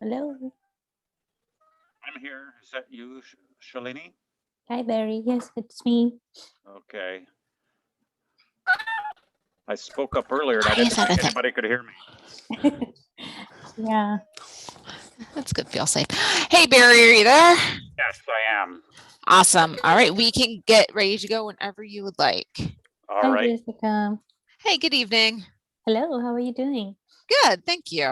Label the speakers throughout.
Speaker 1: Hello.
Speaker 2: I'm here. Is that you, Sh- Shalini?
Speaker 1: Hi, Barry. Yes, it's me.
Speaker 2: Okay. I spoke up earlier and I
Speaker 3: Hi,
Speaker 2: didn't think
Speaker 3: Elizabeth.
Speaker 2: anybody could hear me.
Speaker 1: Yeah.
Speaker 3: That's good. Feel safe. Hey, Barry, are you there?
Speaker 2: Yes, I am.
Speaker 3: Awesome. All right. We can get ready to go whenever you would like.
Speaker 2: All
Speaker 1: Hi,
Speaker 2: right.
Speaker 1: Jessica.
Speaker 3: Hey, good evening.
Speaker 1: Hello. How are you doing?
Speaker 3: Good. Thank you.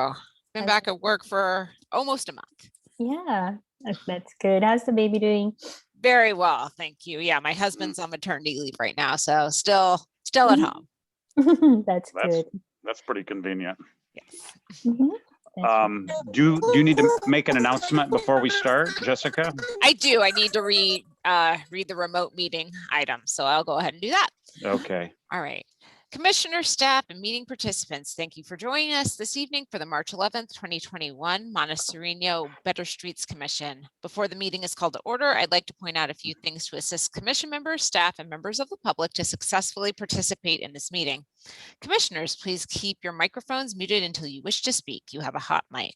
Speaker 3: Been
Speaker 1: How's
Speaker 3: back at work for almost a month.
Speaker 1: Yeah, that- that's good. How's the baby doing?
Speaker 3: Very well. Thank you. Yeah. My husband's on maternity leave right now. So still, still at
Speaker 1: Mm.
Speaker 3: home.
Speaker 1: that's,
Speaker 2: That's-
Speaker 1: good.
Speaker 2: That's pretty convenient.
Speaker 3: Yes.
Speaker 1: Mhm. That's
Speaker 2: Um, do, do you need to make an announcement before we start, Jessica?
Speaker 3: I do. I need to read, uh, read the remote meeting item. So I'll go ahead and do that.
Speaker 2: Okay.
Speaker 3: All right. Commissioner, staff, and meeting participants, thank you for joining us this evening for the March 11th, 2021 Montessorino Better Streets Commission. Before the meeting is called to order, I'd like to point out a few things to assist commission members, staff, and members of the public to successfully participate in this meeting. Commissioners, please keep your microphones muted until you wish to speak. You have a hot mic.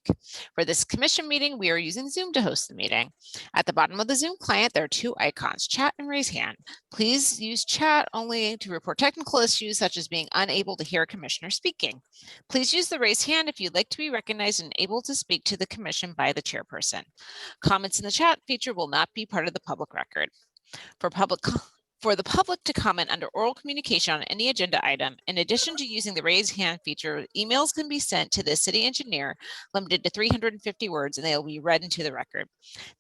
Speaker 3: For this commission meeting, we are using Zoom to host the meeting. At the bottom of the Zoom client, there are two icons, chat and raise hand. Please use chat only to report technical issues such as being unable to hear a commissioner speaking. Please use the raise hand if you'd like to be recognized and able to speak to the commission by the chairperson. Comments in the chat feature will not be part of the public record. For public, co- for the public to comment under oral communication on any agenda item, in addition to using the raise hand feature, emails can be sent to the city engineer limited to 350 words and they will be read into the record.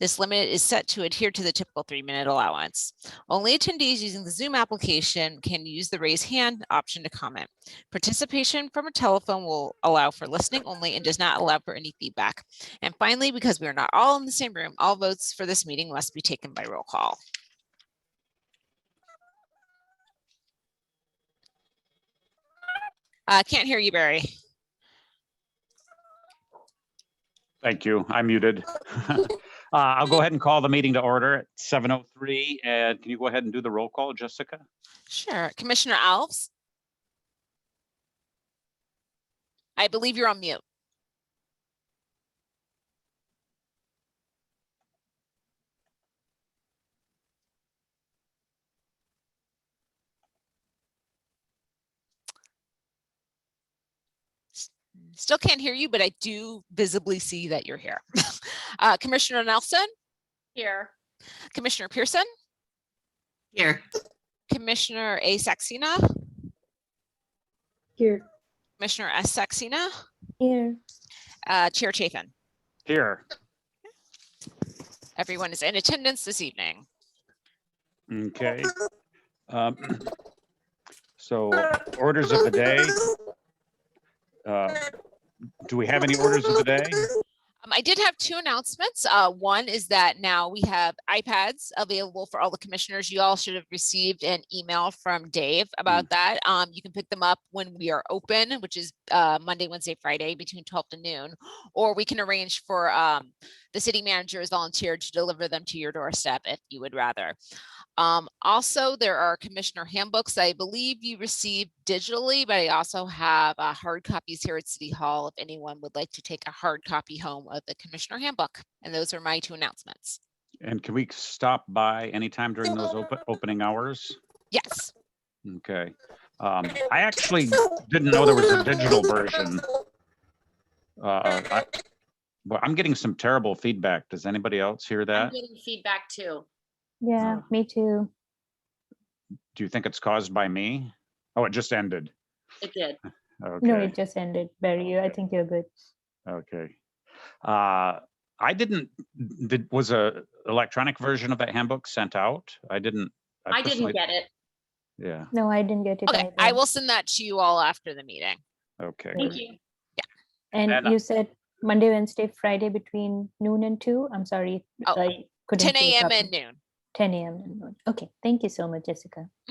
Speaker 3: This limit is set to adhere to the typical three-minute allowance. Only attendees using the Zoom application can use the raise hand option to comment. Participation from a telephone will allow for listening only and does not allow for any feedback. And finally, because we are not all in the same room, all votes for this meeting must be taken by roll call. Uh, can't hear you, Barry.
Speaker 2: Thank you. I'm muted. Uh, I'll go ahead and call the meeting to order at 7:03. And can you go ahead and do the roll call, Jessica?
Speaker 3: Sure. Commissioner Alves? I believe you're on mute. S- Still can't hear you, but I do visibly see that you're here. Uh, Commissioner Nelson,
Speaker 4: Here.
Speaker 3: Commissioner Pearson,
Speaker 4: Here.
Speaker 3: Commissioner A Saxena,
Speaker 4: Here.
Speaker 3: Commissioner S Saxena,
Speaker 1: Here.
Speaker 3: uh, Chair Chafin.
Speaker 2: Here.
Speaker 3: Everyone is in attendance this evening.
Speaker 2: Okay. Um, So orders of the day. Uh, Do we have any orders of the day?
Speaker 3: Um, I did have two announcements. Uh, one is that now we have iPads available for all the commissioners. You all should have received an email from Dave about that. Um, you can pick them up when we are open, which is uh, Monday, Wednesday, Friday between 12 to noon, or we can arrange for um, the city manager is volunteered to deliver them to your doorstep if you would rather. Um, also, there are commissioner handbooks I believe you received digitally, but I also have uh, hard copies here at City Hall if anyone would like to take a hard copy home of the commissioner handbook. And those are my two announcements.
Speaker 2: And can we stop by anytime during those open, opening hours?
Speaker 3: Yes.
Speaker 2: Okay. Um, I actually didn't know there was a digital version. Uh, I- But I'm getting some terrible feedback. Does anybody else hear
Speaker 4: I'm
Speaker 2: that?
Speaker 4: getting feedback too.
Speaker 1: Yeah, me too.
Speaker 2: Do you think it's caused by me? Oh, it just ended.
Speaker 4: It did.
Speaker 1: No,
Speaker 2: Okay,
Speaker 1: it just ended. Barry, you- I
Speaker 2: Okay.
Speaker 1: think you're good.
Speaker 2: okay. Uh, I didn't, did, was a electronic version of that handbook sent out? I didn't.
Speaker 4: I didn't
Speaker 2: personally-
Speaker 4: get it.
Speaker 2: Yeah,
Speaker 1: No, I didn't get it.
Speaker 3: Okay. I
Speaker 1: either.
Speaker 3: will send that to you all after the meeting.
Speaker 2: okay.
Speaker 4: Thank
Speaker 2: great.
Speaker 4: you.
Speaker 1: And
Speaker 2: And, uh,
Speaker 1: you said Monday, Wednesday, Friday between noon and two. I'm sorry.
Speaker 3: Oh,
Speaker 1: I couldn't
Speaker 3: 10
Speaker 1: keep
Speaker 3: a.m.
Speaker 1: up.
Speaker 3: and noon.
Speaker 1: 10 a.m. and noon. Okay. Thank you so much, Jessica.